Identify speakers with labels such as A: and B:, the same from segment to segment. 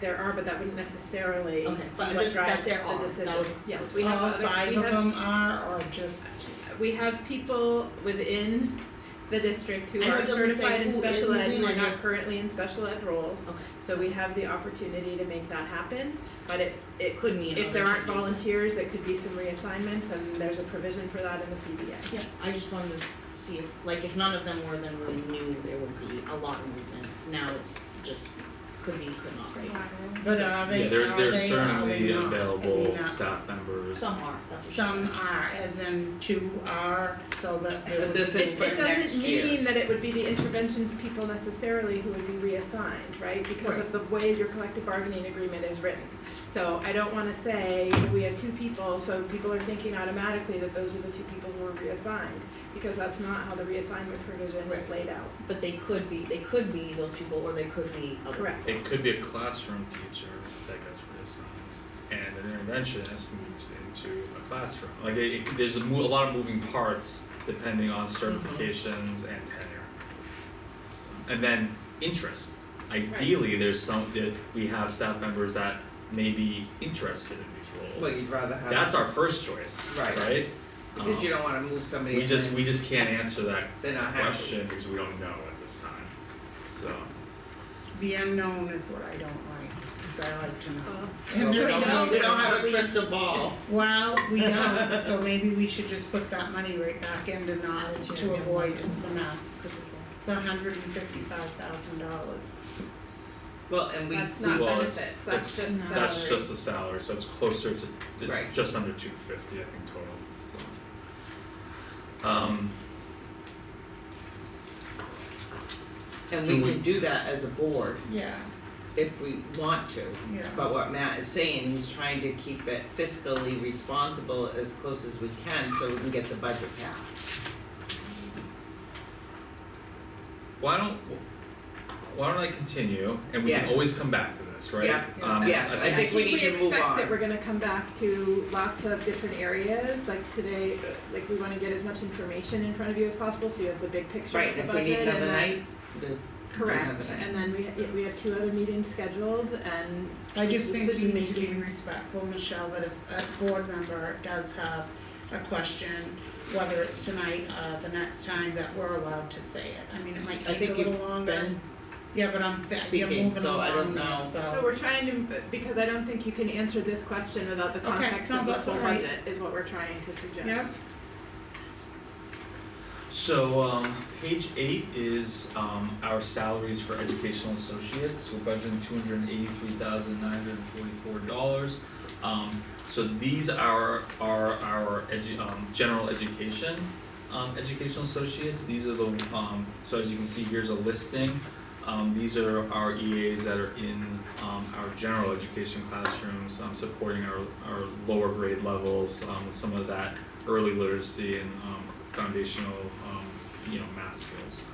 A: there are, but that wouldn't necessarily be
B: Okay, but
A: what drives
B: just
A: the
B: that
A: decision.
B: there are, that was-
A: Yes, we have
C: Uh,
D: All
A: other,
D: five
A: we
D: of
A: have-
D: them are, or just,
A: we have people within the district who
B: I know
A: are
B: it doesn't say
A: certified in
B: who is
A: special ed,
B: moving,
A: who are
B: it
A: not
B: just-
A: currently in special ed roles.
B: Okay.
A: So we have the opportunity to make that happen, but it, it
B: It could mean
A: if
B: other
A: there aren't
B: changes.
A: volunteers, it could be some reassignments and there's a provision for that in the CBA.
B: Yeah, I just wanted to see if, like, if none of them were, then we knew there would be a lot of movement. Now it's just could be, could not, right?
D: but are they, are
C: Yeah,
D: they,
C: there
D: are they not?
C: there's certainly
D: I mean,
C: available
D: that's-
C: staff members.
B: Some are, that's what she
D: Some are, as in two are, so that they
E: But
D: would
E: this
D: be-
E: is for
A: It
E: next
A: doesn't mean
E: year's.
A: that it would be the intervention people necessarily who would be reassigned, right? Because of the way your collective bargaining agreement is written. So I don't wanna say, we have two people, so people are thinking automatically that those were the two people who were reassigned, because that's not how the reassignment provision is
B: Right.
A: laid out.
B: said. But they could be, they could be those people, or they could be other.
A: Correct.
C: It could be a classroom teacher that gets reassigned, and an interventionist moves into a classroom. Like it, it- there's a mo- a lot of moving parts depending on
D: Mm-hmm.
C: certifications and tenure. And then interest. Ideally, there's some, that we have staff members that may be interested in these
E: Well,
C: roles.
E: you'd rather have.
C: That's our first choice, right?
E: Right. Because you don't wanna move
C: Um,
E: somebody
C: We
E: and
C: just,
E: then
C: we just can't answer that
E: they're not happy.
C: question because we don't know at this time, so.
D: The unknown is what I don't like, cause I like to know.
A: Uh,
D: And
E: We
D: there
E: don't,
D: you
E: have-
D: go.
E: we don't have
A: but
E: a
A: we-
E: crystal ball.
D: Well, we don't, so maybe we should just put that money right back into not,
B: Add it to
D: to
B: your meals
D: avoid
B: options.
D: the mess.
B: Which is the-
D: It's a hundred and fifty-five thousand dollars.
E: Well, and we,
A: That's
E: we-
A: not
C: Well,
A: benefits,
C: it's-
A: that's
C: it's-
A: just salary.
C: That's just the salary, so it's closer to,
E: Right.
C: it's just under two fifty, I think, total, so. Um,
E: and
C: Do
E: we
C: we-
E: can do that as a board
D: Yeah,
E: if we want to.
D: yeah.
E: But what Matt is saying, he's trying to keep it fiscally responsible as close as we can so we can get the budget passed.
C: why don't, why don't I continue, and we can
E: Yes.
C: always come back to this, right?
E: Yeah.
C: Um,
E: Yes,
C: I
E: I
C: think
E: think we need to move
A: expect that
E: on.
A: we're gonna come back to lots of different areas, like today, uh, like we wanna get as much information in front of you as possible, so you have the big picture of
E: Right,
A: the
E: if we need
A: budget and
E: another
A: then
E: night, the,
A: Correct,
E: Another night.
A: and then we, yeah, we have two other meetings scheduled and
D: I just think we need to be
A: Decision-making.
D: respectful, Michelle, that if a board member does have a question, whether it's tonight, uh, the next time, that we're allowed to say it. I mean, it might take a
E: think you've
D: little longer.
E: Ben,
D: Yeah, but I'm, th- you're
E: speaking,
D: moving
E: so I
D: along
E: don't
D: now,
E: know.
A: but
D: so,
A: we're trying to, because I don't think you can answer this question without the
D: Okay,
A: context
D: no,
A: of the
D: that's
A: full
D: all right.
A: budget is what we're trying to suggest.
D: Yep.
C: So, um, page eight is, um, our salaries for educational associates, we're budgeting two hundred and eighty-three thousand nine hundred and forty-four dollars. Um, so these are, are our edu- um, general education, um, educational associates, these are the, um, so as you can see, here's a listing. Um, these are our EAs that are in, um, our general education classrooms, um, supporting our, our lower grade levels, um, with some of that early literacy and um, foundational um, you know math skills.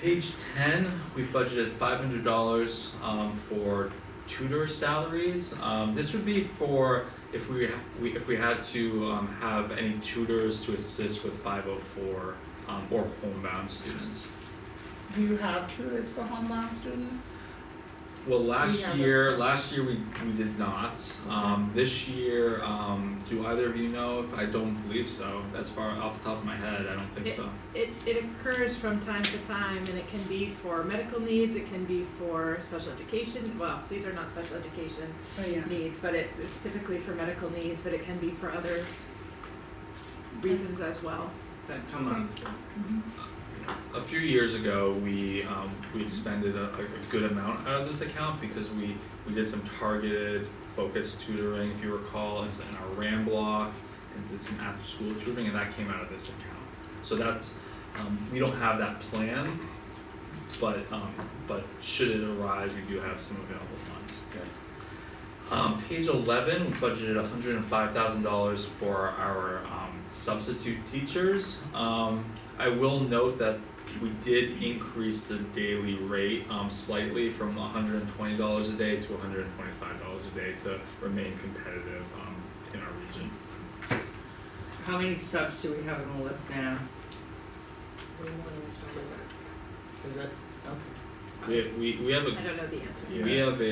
C: Page ten, we've budgeted five hundred dollars um, for tutor salaries. Um, this would be for if we, we if we had to um, have any tutors to assist with five hundred four um, or homebound students.
D: do you have tutors for homebound students?
C: Well,
D: We
C: last
D: have a-
C: year, last year we, we did not, um, this year, um, do either of you know, if I don't believe so, as far off the top of my head, I don't think
A: Yeah.
C: so.
A: It, it occurs from time to time and it can be for medical needs, it can be for special education, well, these are not special education
D: Oh, yeah.
A: needs, but it, it's typically for medical needs, but it can be for other reasons as well.
E: that come up.
C: A few years ago, we, um, we expended a, a good amount out of this account because we, we did some targeted focused tutoring, if you recall, it's in our RAM block, and did some after school tutoring, and that came out of this account. So that's, um, we don't have that plan, but, um, but should it arise, we do have some available funds. Um, page eleven, we budgeted hundred and five thousand dollars for our, um, substitute teachers. Um, I will note that we did increase the daily rate, um, slightly from hundred and twenty dollars a day to hundred and twenty-five dollars a day to remain competitive, um, in our region.
E: How many subs do we have on the list now?
B: Way more than we started with.
E: Is it, okay.
C: We, we, we have
A: I
C: a,
A: don't know the answer.
C: we have a,